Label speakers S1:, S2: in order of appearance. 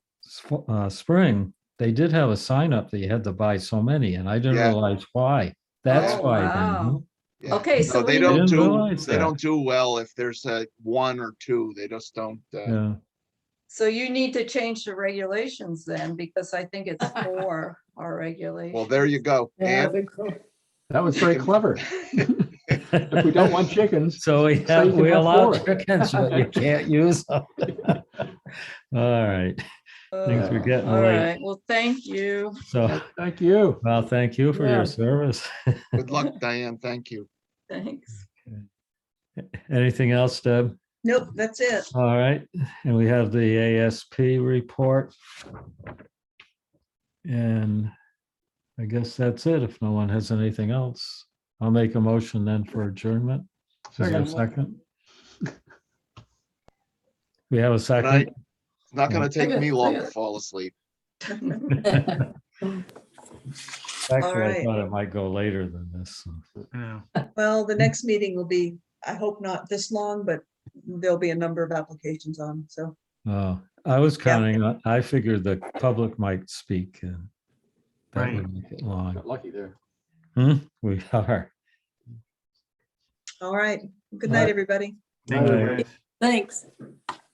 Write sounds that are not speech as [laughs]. S1: sp- uh, spring, they did have a sign up that you had to buy so many, and I didn't
S2: Yeah.
S1: realize why. That's
S2: Oh,
S1: why. then,
S3: wow.
S1: huh?
S2: Yeah.
S3: Okay,
S2: No,
S3: so
S2: They
S3: we
S2: don't
S1: didn't
S2: do,
S1: realize
S2: they
S1: that.
S2: don't do well if there's a one or two, they just don't, uh,
S1: Yeah,
S3: So you need to change the regulations then, because I think
S2: [laughs]
S3: it's four, our regulation.
S2: well, there you go.
S4: Yeah, I
S2: And,
S4: think so.
S5: That was very clever. If we don't want chickens,
S1: so we
S5: So you
S1: have,
S5: can
S1: we
S5: have
S1: allow
S5: four.
S1: chickens, but you can't use them. [laughs] All right, things
S3: Uh,
S1: are getting
S3: All
S1: late,
S3: right, well, thank you.
S1: so,
S5: thank you.
S1: well, thank you for
S4: Yeah.
S1: your service. [laughs]
S2: good luck, Diane, thank you.
S3: Thanks.
S1: Anything else, Deb?
S3: Nope, that's it.
S1: All right, and we have the ASP report. And I guess that's it, if no one has anything else. I'll make a motion then for adjournment. Is there a
S5: Second.
S1: second? We have a
S2: And I,
S1: second.
S2: it's not gonna take me
S4: Second,
S2: long to
S4: second.
S2: fall asleep.
S1: Actually, I
S6: right.
S1: thought it might go later than this.
S6: Well, the next meeting will be, I hope not this long, but there'll be a number of applications on, so.
S1: Oh, I was counting, on- I figured the public might speak. and That
S7: Right.
S1: would make it long.
S5: Got lucky there.
S1: Hmm, We are.
S6: All right. Good
S1: All right.
S6: night, everybody.
S7: Thank you,
S1: Right.
S7: guys.
S4: Thanks.